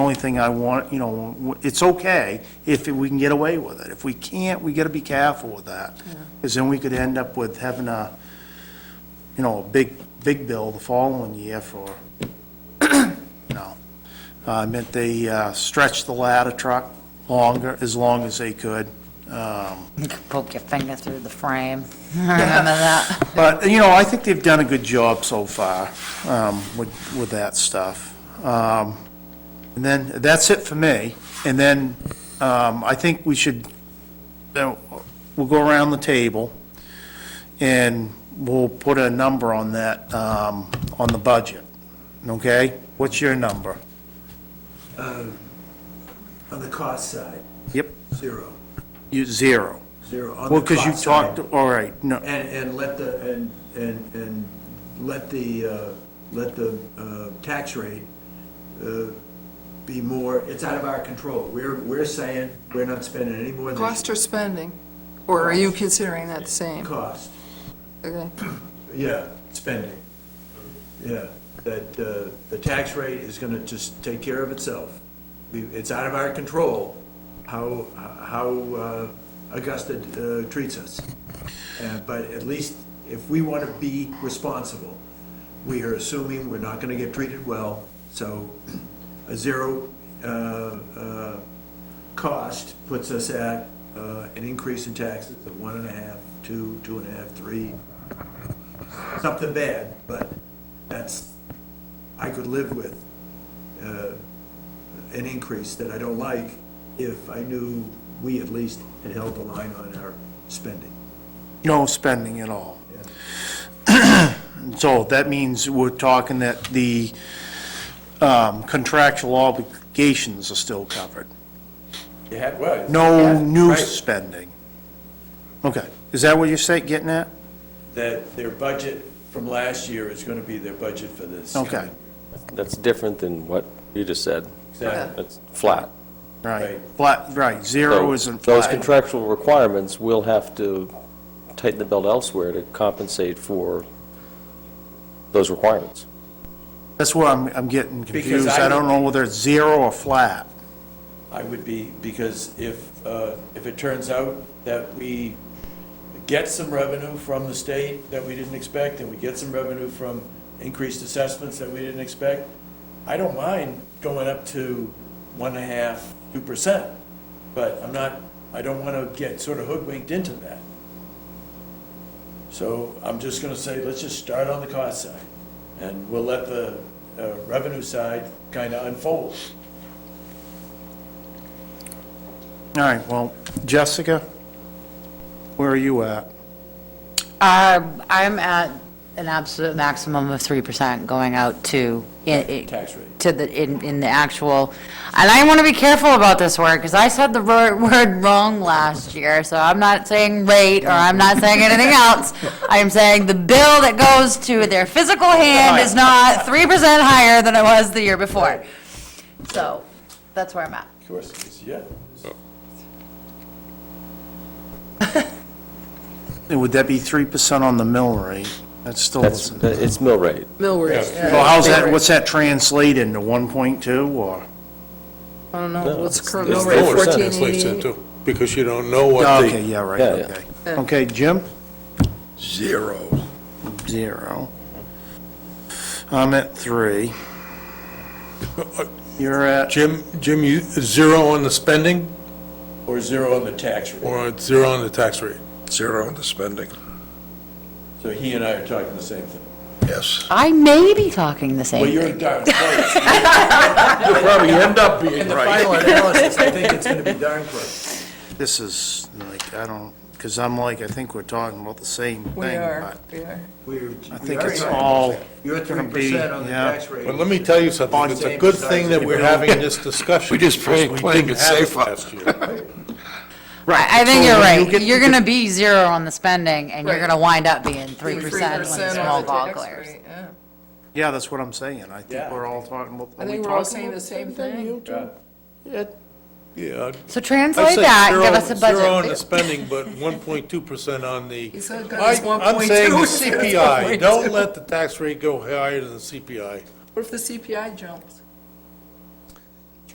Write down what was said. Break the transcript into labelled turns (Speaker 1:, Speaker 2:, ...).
Speaker 1: only thing I want, you know, w- it's okay if we can get away with it. If we can't, we got to be careful with that. Because then we could end up with having a, you know, a big, big bill the following year for, you know. I meant they uh, stretched the ladder truck longer, as long as they could. Um,
Speaker 2: You could poke your finger through the frame. Remember that?
Speaker 1: But, you know, I think they've done a good job so far um, with, with that stuff. Um, And then, that's it for me. And then, um, I think we should, then we'll go around the table, and we'll put a number on that, um, on the budget, okay? What's your number?
Speaker 3: On the cost side,
Speaker 1: Yep.
Speaker 3: zero,
Speaker 1: You, zero.
Speaker 3: zero. on the
Speaker 1: Well, because you
Speaker 3: cost side.
Speaker 1: talked, all right, no,
Speaker 3: And, and let the, and, and, and let the, uh, let the uh, tax rate uh, be more, it's out of our control. We're, we're saying we're not spending any more than
Speaker 4: Cost or spending? Or are you considering that the same?
Speaker 3: cost.
Speaker 4: Okay.
Speaker 3: Yeah, spending. Yeah, that uh, the tax rate is going to just take care of itself. We- It's out of our control how, how uh, Augusta uh, treats us. Uh, But at least if we want to be responsible, we are assuming we're not going to get treated well. So a zero uh, uh, cost puts us at uh, an increase in taxes of one and a half, two, two and a half, three, something bad, but that's, I could live with uh, an increase that I don't like if I knew we at least had held the line on our spending. Uh,
Speaker 1: no spending at all. So that means we're talking that the um, contractual obligations are still covered.
Speaker 3: Yeah, well.
Speaker 1: No new
Speaker 3: right.
Speaker 1: spending. Okay, is that what you're saying, getting at?
Speaker 3: That their budget from last year is going to be their budget for this.
Speaker 1: Okay,
Speaker 5: That's different than what you just said.
Speaker 3: Exactly.
Speaker 5: It's flat.
Speaker 1: right,
Speaker 3: Right.
Speaker 1: flat, right, zero
Speaker 5: So
Speaker 1: isn't
Speaker 5: Those
Speaker 1: flat.
Speaker 5: contractual requirements will have to tighten the belt elsewhere to compensate for those requirements.
Speaker 1: That's where I'm, I'm getting confused.
Speaker 3: I-
Speaker 1: I don't know whether it's zero or flat.
Speaker 3: I would be, because if, uh, if it turns out that we get some revenue from the state that we didn't expect, and we get some revenue from increased assessments that we didn't expect, I don't mind going up to one and a half, two percent, but I'm not, I don't want to get sort of hoodwinked into that. So I'm just going to say, let's just start on the cost side, and we'll let the uh, revenue side kind of unfold.
Speaker 1: All right, well, Jessica, where are you at?
Speaker 2: Uh, I'm at an absolute maximum of 3% going out to. i- i-
Speaker 3: Tax rate.
Speaker 2: To the, in, in the actual, and I want to be careful about this word, because I said the wor- word wrong last year, so I'm not saying rate, or I'm not saying anything else. I'm saying the bill that goes to their physical hand is not 3% higher than it was the year before. So, that's where I'm at.
Speaker 3: Of course, it is, yeah.
Speaker 6: Oh.
Speaker 1: And Would that be three percent on the mill rate? That still
Speaker 5: That's,
Speaker 1: isn't.
Speaker 5: it's mill rate.
Speaker 4: Mill rate.
Speaker 1: Well, how's that, what's that translate into, one point two, or?
Speaker 4: I don't know, what's the current mill
Speaker 5: it's
Speaker 4: rate,
Speaker 5: lower percent,
Speaker 4: fourteen
Speaker 7: That's leaks
Speaker 4: eighty?
Speaker 7: into, because you don't know what
Speaker 1: Oh, Okay,
Speaker 7: the.
Speaker 1: yeah, right,
Speaker 5: Yeah, yeah.
Speaker 1: okay. Okay, Jim?
Speaker 7: Zero.
Speaker 1: Zero. I'm at three.
Speaker 5: Uh,
Speaker 1: You're at,
Speaker 7: Jim, Jim, you, zero on the spending
Speaker 3: Or zero on the tax rate.
Speaker 7: or zero on the tax rate?
Speaker 6: Zero on the spending,
Speaker 3: So he and I are talking the same thing.
Speaker 6: yes.
Speaker 2: I may be talking the same
Speaker 3: Well,
Speaker 2: thing.
Speaker 3: you're darn close.
Speaker 6: You'll probably end up being
Speaker 3: In the final analysis, I think it's going to be darn close.
Speaker 1: this is like, I don't, because I'm like, I think we're talking about the same thing.
Speaker 4: We are,
Speaker 1: but
Speaker 4: we are.
Speaker 3: We're-
Speaker 1: I
Speaker 3: we
Speaker 1: think
Speaker 3: are
Speaker 1: it's
Speaker 3: talking
Speaker 1: all
Speaker 3: the same. You're at
Speaker 1: gonna
Speaker 3: three
Speaker 1: be-
Speaker 3: percent on the
Speaker 1: yeah.
Speaker 3: tax rate.
Speaker 7: But let me tell you something, it's a good thing that we're having this discussion.
Speaker 6: We just play-
Speaker 7: because we
Speaker 6: playing
Speaker 7: didn't
Speaker 6: it
Speaker 7: have
Speaker 6: safe.
Speaker 7: last year.
Speaker 2: I I think
Speaker 1: So
Speaker 2: you're
Speaker 1: when you
Speaker 2: right.
Speaker 1: get
Speaker 2: You're
Speaker 1: to-
Speaker 2: going to be zero on the spending, and you're
Speaker 4: Right.
Speaker 2: going to wind up being 3% when
Speaker 4: 3% on
Speaker 2: the
Speaker 4: the
Speaker 2: small ball
Speaker 4: tax
Speaker 2: players.
Speaker 4: rate, yeah.
Speaker 1: Yeah, that's what I'm saying. I think
Speaker 3: Yeah.
Speaker 1: we're all talking about.
Speaker 4: I think we're all saying the same thing.
Speaker 7: Yeah. I'd-
Speaker 2: So
Speaker 7: I'd
Speaker 2: translate
Speaker 7: say
Speaker 2: that, and give
Speaker 7: zero-
Speaker 2: us a
Speaker 7: Zero on the
Speaker 2: budget.
Speaker 7: spending, but 1.2% on the.
Speaker 4: said that
Speaker 7: I-
Speaker 4: it's
Speaker 7: I'm saying
Speaker 4: 1.2.
Speaker 7: the CPI, don't let the tax rate go higher than the CPI.
Speaker 4: What if the CPI jumps?